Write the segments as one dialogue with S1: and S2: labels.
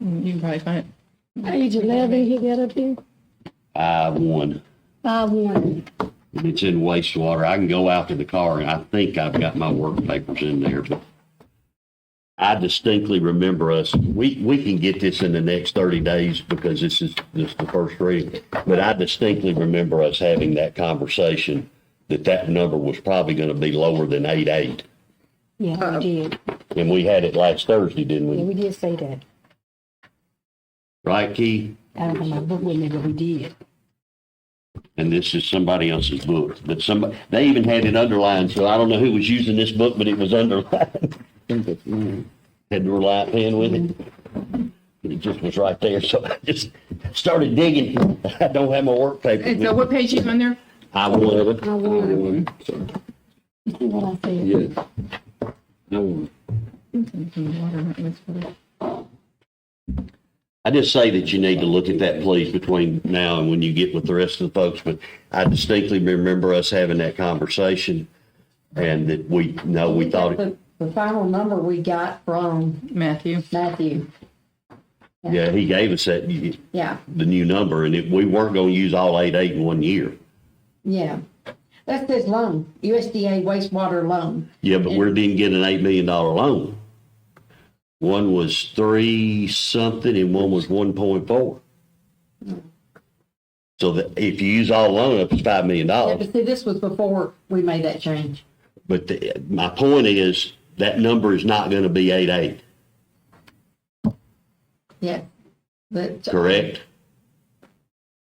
S1: You can probably find it.
S2: Page eleven, you got up here?
S3: I won.
S2: Five one.
S3: And It's in wastewater. I can go out to the car and I think I've got my work papers in there, but I distinctly remember us, we, we can get this in the next thirty days because this is, this is the first reading. But I distinctly remember us having that conversation, that that number was probably gonna be lower than eight eight.
S2: Yeah, we did.
S3: And we had it last Thursday, didn't
S2: Yeah,
S3: we?
S2: we did say that.
S3: Right, Keith?
S2: I don't have my book with me, but we did.
S3: and this is somebody else's book, but somebody, they even had it underlined, so I don't know who was using this book, but it was underlined. Had the reliant pen with it. And It just was right there, so I just started digging. I don't have my work paper.
S1: And so
S3: with-
S1: what page you on there?
S3: I would,
S2: I won. See what I said?
S3: yeah. I would.
S1: Water, not wastewater.
S3: I just say that you need to look at that, please, between now and when you get with the rest of the folks, but I distinctly remember us having that conversation and that we, no, we thought. it.
S4: The, the final number we got from
S1: Matthew.
S4: Matthew,
S3: Yeah, he gave us that, the
S4: yeah,
S3: new number, and it- we weren't gonna use all eight, eight in one year.
S4: yeah. That's this loan, USDA wastewater loan.
S3: Yeah, but we didn't get an eight million dollar loan. One was three something and one was one point four. So that if you use all loan, up, it's five million
S4: Yeah,
S3: dollars.
S4: but see, this was before we made that change.
S3: But the, my point is, that number is not gonna be eight, eight,
S4: Yeah. But
S3: correct?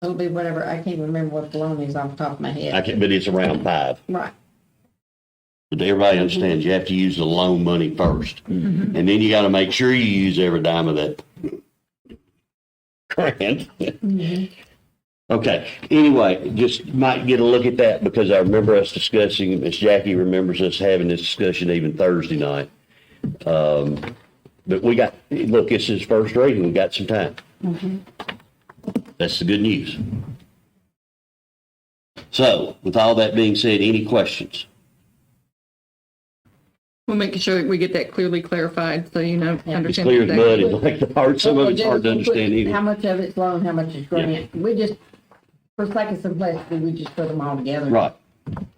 S4: it'll be whatever, I can't remember what the loan is off the top of my
S3: I
S4: head.
S3: can, but it's around five.
S4: Right.
S3: But everybody understands you have to use the loan money 1st And then you got to make sure you use every dime of that grant. Okay. Anyway, just might get a look at that because I remember us discussing, Miss Jackie remembers us having this discussion even Thursday night. Um, but we got, look, this is first reading. We got some time. That's the good news. So with all that being said, any questions?
S1: We'll make sure that we get that clearly clarified so you know,
S3: It's
S1: understand.
S3: clear as
S1: exactly. Oh,
S3: mud, and like the hard, some of it's hard to understand
S4: How
S3: either.
S4: much of it's loan, how much is grant? We just, for sake of simplicity, we just put them all together.
S3: Right.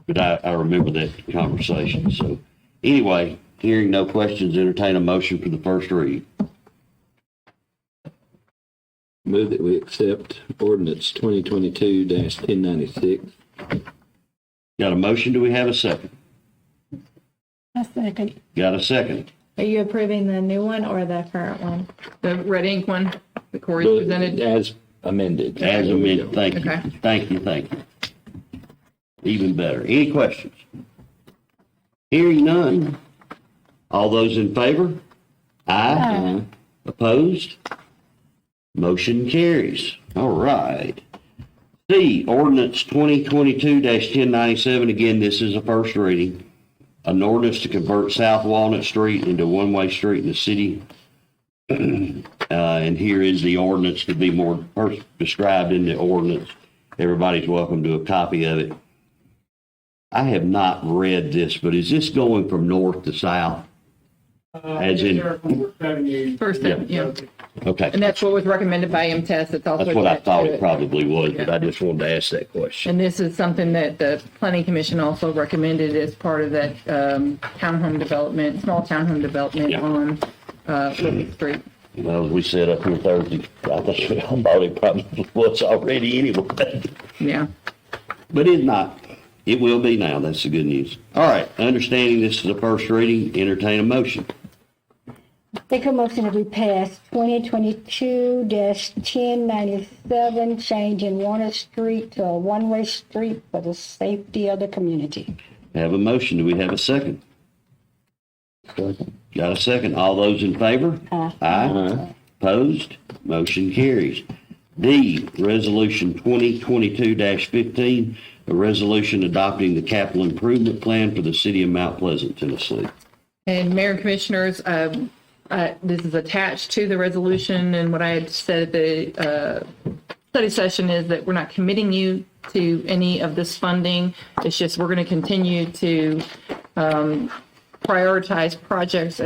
S3: But I, I remember that conversation, so. Anyway, hearing no questions, entertain a motion for the first read.
S5: Move that we accept ordinance twenty twenty-two ten ninety-six.
S3: Got a motion, do we have a second?
S2: I second.
S3: Got a second?
S6: Are you approving the new one or the current one?
S1: The red ink one that Corey presented.
S5: As amended.
S3: As amended, thank you,
S1: Okay.
S3: thank you, thank you. Even better. Any questions? Hearing none. All those in favor? Aye. Opposed? Motion carries. All right. C, ordinance twenty twenty-two ten ninety-seven. Again, this is a first reading. An ordinance to convert South Walnut Street into one-way street in the city uh, and here is the ordinance to be more first described in the ordinance. Everybody's welcome to a copy of it. I have not read this, but is this going from north to south?
S1: Uh,
S3: As in-
S1: First, thing, yeah. And
S3: Okay,
S1: that's what was recommended by MTS. It's also.
S3: that's what I
S1: attached to
S3: thought it probably was, but
S1: Yeah.
S3: I just wanted to ask that question.
S1: And this is something that the planning commission also recommended as part of that um, townhome development, small townhome development
S3: Yeah.
S1: on uh, Liberty Street.
S3: Well, as we said up here Thursday, I think we all thought it probably was already anyway.
S1: Yeah.
S3: But it's not. It will be now. That's the good news. All right, understanding this is a first reading, entertain a motion.
S2: Take a motion that we pass twenty twenty-two ten ninety-seven, changing Warner Street to a one-way street for the safety of the community.
S3: Have a motion. Do we have a second? Got a second? All those in favor?
S2: Aye.
S3: Aye. Opposed? Motion carries. D, Resolution 2022-15, a resolution adopting the capital improvement plan for the city of Mount Pleasant, Tennessee.
S1: And Mayor and Commissioners, um, uh, this is attached to the resolution, and what I had said at the uh, study session is that we're not committing you to any of this funding. It's just, we're going to continue to um, prioritize projects